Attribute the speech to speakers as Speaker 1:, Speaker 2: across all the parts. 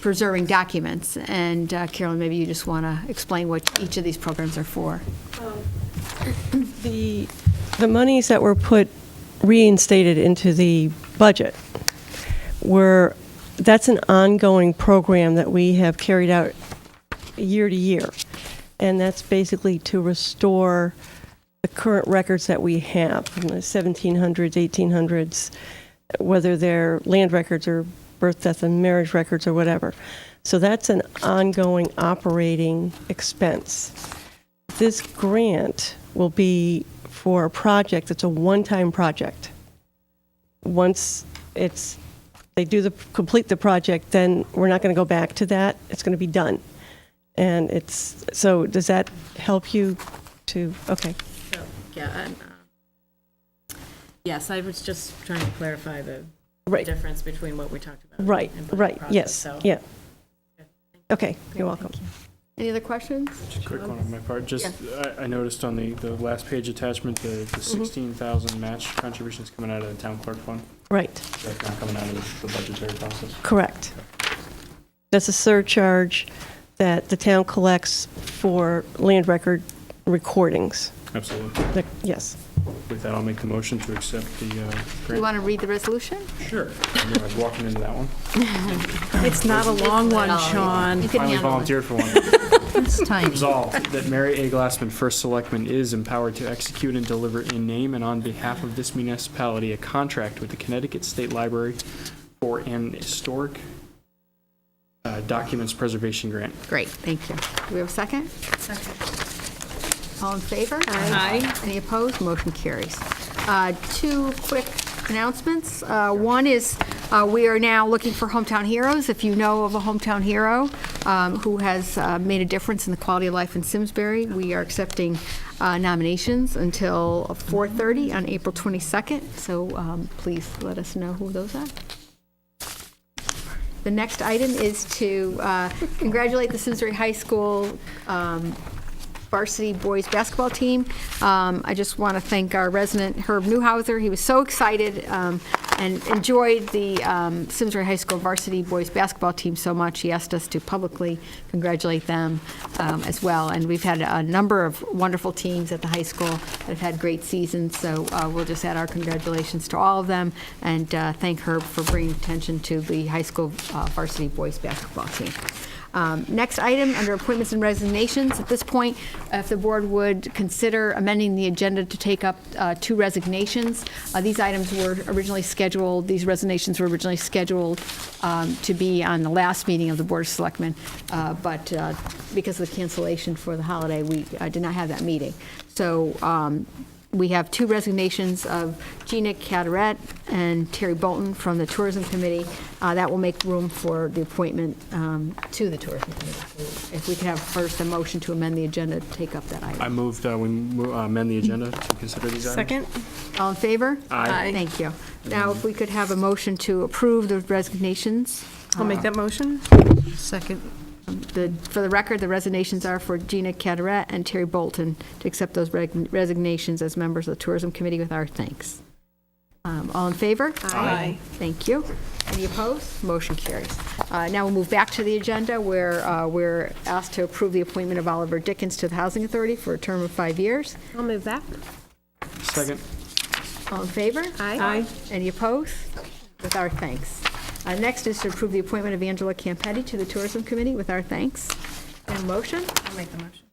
Speaker 1: preserving documents. And uh, Carolyn, maybe you just want to explain what each of these programs are for.
Speaker 2: The, the monies that were put, reinstated into the budget were, that's an ongoing program that we have carried out year to year. And that's basically to restore the current records that we have from the 1700s, 1800s, whether they're land records or birth, death, and marriage records or whatever. So that's an ongoing operating expense this grant will be for a project that's a one-time project. Once it's, they do the, complete the project, then we're not going to go back to that. It's going to be done. And it's, so does that help you to, okay.
Speaker 3: So, yeah, and, um, yes, I was just trying to clarify the
Speaker 2: Right.
Speaker 3: difference between what we talked about.
Speaker 2: Right,
Speaker 3: and budget
Speaker 2: right,
Speaker 3: process,
Speaker 2: yes,
Speaker 3: so-
Speaker 2: yeah. Okay, you're welcome.
Speaker 1: Any other questions?
Speaker 4: Just a quick one on my part, just, I, I noticed on the, the last page attachment, the, the sixteen thousand match contributions coming out of the town clerk fund,
Speaker 2: Right.
Speaker 4: that's not coming out of the budgetary process.
Speaker 2: Correct. That's a surcharge that the town collects for land record recordings.
Speaker 4: Absolutely.
Speaker 2: The- Yes.
Speaker 4: With that, I'll make the motion to accept the, uh,
Speaker 1: You
Speaker 4: grant.
Speaker 1: want to read the resolution?
Speaker 4: Sure. I knew I was walking into that one.
Speaker 5: It's not a long one, Sean.
Speaker 1: You can handle
Speaker 4: Finally
Speaker 1: it.
Speaker 4: volunteered for one.
Speaker 5: It's tiny.
Speaker 4: Resolved that Mary A. Glassman, First Selectman, is empowered to execute and deliver in name and on behalf of this municipality a contract with the Connecticut State Library for an historic uh, documents preservation grant.
Speaker 1: Great, thank you. Do we have a second? Second. All in favor? Aye. Any opposed? Motion carries. Uh, Two quick announcements. Uh, One is, uh, we are now looking for hometown heroes. If you know of a hometown hero um, who has uh, made a difference in the quality of life in Simsbury, we are accepting uh, nominations until 4:30 on April 22nd, so um, please let us know who those are. The next item is to uh, congratulate the Simsbury High School um, varsity boys basketball team. Um, I just want to thank our resident Herb Newhouser. He was so excited um, and enjoyed the um, Simsbury High School varsity boys basketball team so much. He asked us to publicly congratulate them um, as well. And we've had a number of wonderful teams at the high school that have had great seasons. So uh, we'll just add our congratulations to all of them and uh, thank Herb for bringing attention to the high school uh, varsity boys basketball team. Um, Next item, under appointments and resignations, at this point, if the board would consider amending the agenda to take up uh, two resignations. Uh, These items were originally scheduled, these resignations were originally scheduled um, to be on the last meeting of the Board of Selectmen, uh, but uh, because of the cancellation for the holiday, we uh, did not have that meeting. So um, we have two resignations of Gina Cataret and Terry Bolton from the Tourism Committee. Uh, That will make room for the appointment um, to the Tourism Committee. If we could have first a motion to amend the agenda to take up that item.
Speaker 4: I moved, uh, we mo- uh, amend the agenda to consider these items.
Speaker 5: Second?
Speaker 1: All in favor?
Speaker 4: Aye. Aye.
Speaker 1: Thank you. Now, if we could have a motion to approve the resignations. Uh,
Speaker 5: I'll make that motion. Second.
Speaker 1: The- For the record, the resignations are for Gina Cataret and Terry Bolton to accept those reg- resignations as members of the Tourism Committee with our thanks. Um, All in favor?
Speaker 5: Aye.
Speaker 1: Thank you. Any opposed? Motion carries. Uh, Now we'll move back to the agenda where uh, we're asked to approve the appointment of Oliver Dickens to the Housing Authority for a term of five years.
Speaker 5: I'll move that.
Speaker 4: Second.
Speaker 1: All in favor?
Speaker 5: Aye.
Speaker 1: Any opposed? With our thanks. Uh, Next is to approve the appointment of Angela Campetti to the Tourism Committee with our thanks. And motion?
Speaker 3: I'll make the motion.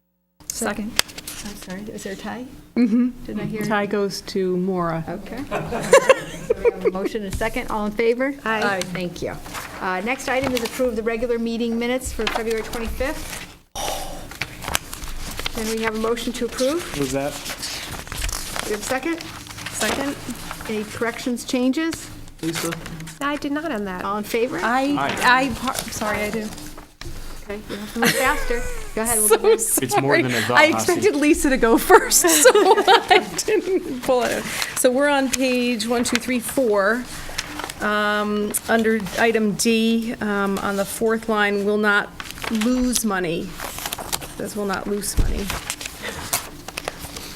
Speaker 5: Second.
Speaker 1: I'm sorry, is there a tie? Mm-hmm. Didn't I hear?
Speaker 6: Tie goes to Mora.
Speaker 1: Okay. We have a Motion and a second, all in favor?
Speaker 5: Aye.
Speaker 1: Thank you. Uh, Next item is approve the regular meeting minutes for February 25th. Then we have a motion to approve.
Speaker 4: Was that?
Speaker 1: We have a second?
Speaker 5: Second?
Speaker 1: Any corrections, changes?
Speaker 5: I did not on that.
Speaker 1: All in favor?
Speaker 5: I, I, sorry, I do.
Speaker 1: Okay, you have to move faster. Go ahead. we'll go back.
Speaker 4: It's more than a thought,
Speaker 6: I
Speaker 4: Hasi.
Speaker 6: expected Lisa to go first, so I didn't pull it.
Speaker 7: So we're on page one, two, three, four. Um, Under item D, um, on the fourth line, will not lose money. This will not lose money.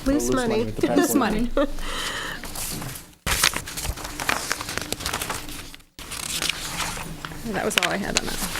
Speaker 4: Lose money. with the
Speaker 7: Lose
Speaker 4: password.
Speaker 7: money. That was all I had on that.